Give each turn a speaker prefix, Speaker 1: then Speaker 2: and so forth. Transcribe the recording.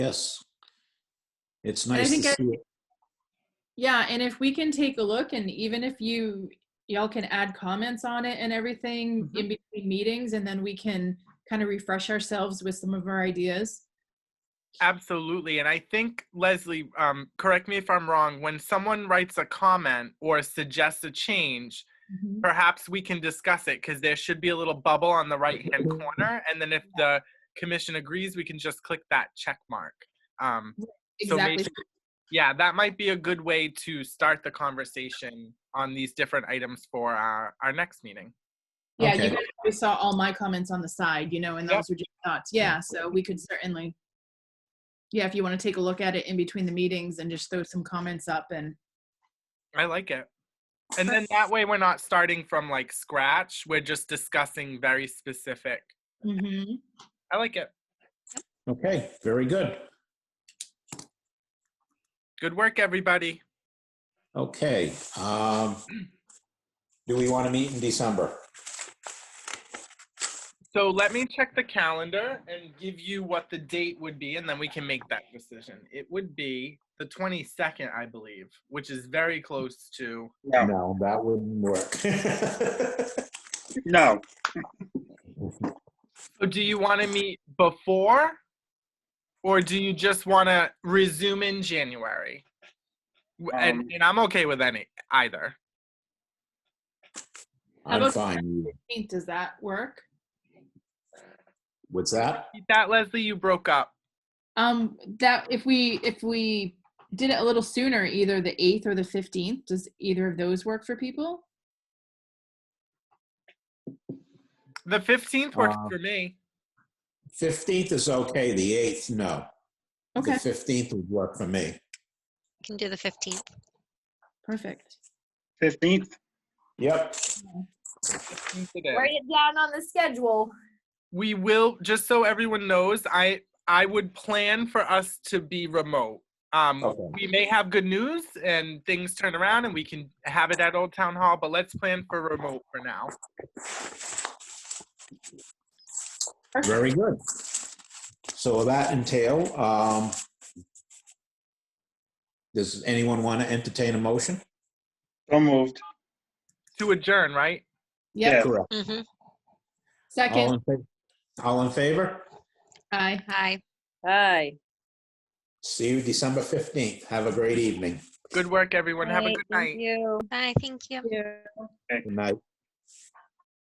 Speaker 1: Yes. It's
Speaker 2: I
Speaker 1: nice to
Speaker 2: think I-
Speaker 1: see it.
Speaker 2: Yeah, and if we can take a look and even if you, y'all can add comments on it and everything in between meetings and then we can kind of refresh ourselves with some of our ideas.
Speaker 3: Absolutely. And I think, Leslie, um, correct me if I'm wrong, when someone writes a comment or suggests a change, perhaps we can discuss it because there should be a little bubble on the right hand corner. And then if the commission agrees, we can just click that check mark. Um, So
Speaker 2: Exactly.
Speaker 3: basically- yeah, that might be a good way to start the conversation on these different items for our, our next meeting.
Speaker 2: Yeah,
Speaker 1: Okay.
Speaker 2: you guys probably saw all my comments on the side, you know, and
Speaker 3: Yep.
Speaker 2: those were just thoughts. Yeah, so we could certainly, yeah, if you want to take a look at it in between the meetings and just throw some comments up and,
Speaker 3: I like it. And then that way we're not starting from like scratch. We're just discussing very specific.
Speaker 2: Mhm.
Speaker 3: I like it.
Speaker 1: Okay, very good.
Speaker 3: Good work, everybody.
Speaker 1: Okay. um, Do we want to meet in December?
Speaker 3: So let me check the calendar and give you what the date would be, and then we can make that decision. It would be the 22nd, I believe, which is very close to.
Speaker 4: No.
Speaker 1: No, that wouldn't work.
Speaker 4: No,
Speaker 3: So do you want to meet before, or do you just want to resume in January? W-
Speaker 4: Um,
Speaker 3: and, and I'm okay with any either.
Speaker 1: I'm
Speaker 2: about-
Speaker 1: fine.
Speaker 2: does that work?
Speaker 1: What's that?
Speaker 3: Beat That Leslie, you broke up.
Speaker 2: Um, that, if we, if we did it a little sooner, either the 8th or the 15th, does either of those work for people?
Speaker 3: The 15th works
Speaker 1: Uh,
Speaker 3: for me.
Speaker 1: 15th is okay, the 8th, no. The
Speaker 2: Okay,
Speaker 1: 15th would work for me.
Speaker 5: Can do the 15th.
Speaker 2: perfect.
Speaker 4: 15th.
Speaker 1: Yep.
Speaker 3: 15th it is.
Speaker 6: Write it down on the schedule.
Speaker 3: we will just so everyone knows i i would plan for us to be remote um
Speaker 1: Okay.
Speaker 3: we may have good news and things turn around and we can have it at old town hall but let's plan for remote for now
Speaker 1: Very good. So will that entail, um, does anyone want to entertain a motion?
Speaker 4: So moved.
Speaker 3: to adjourn right
Speaker 2: Yep,
Speaker 1: Correct.
Speaker 5: Mm-hmm.
Speaker 1: All
Speaker 2: second,
Speaker 1: in fa- all in favor?
Speaker 2: aye.
Speaker 5: Hi.
Speaker 7: Hi.
Speaker 1: See you December 15th. Have a great evening.
Speaker 3: good work everyone have a
Speaker 7: Right,
Speaker 3: good
Speaker 7: thank
Speaker 3: night
Speaker 7: You.
Speaker 5: Bye. Thank you.
Speaker 7: Yeah.
Speaker 1: Good night.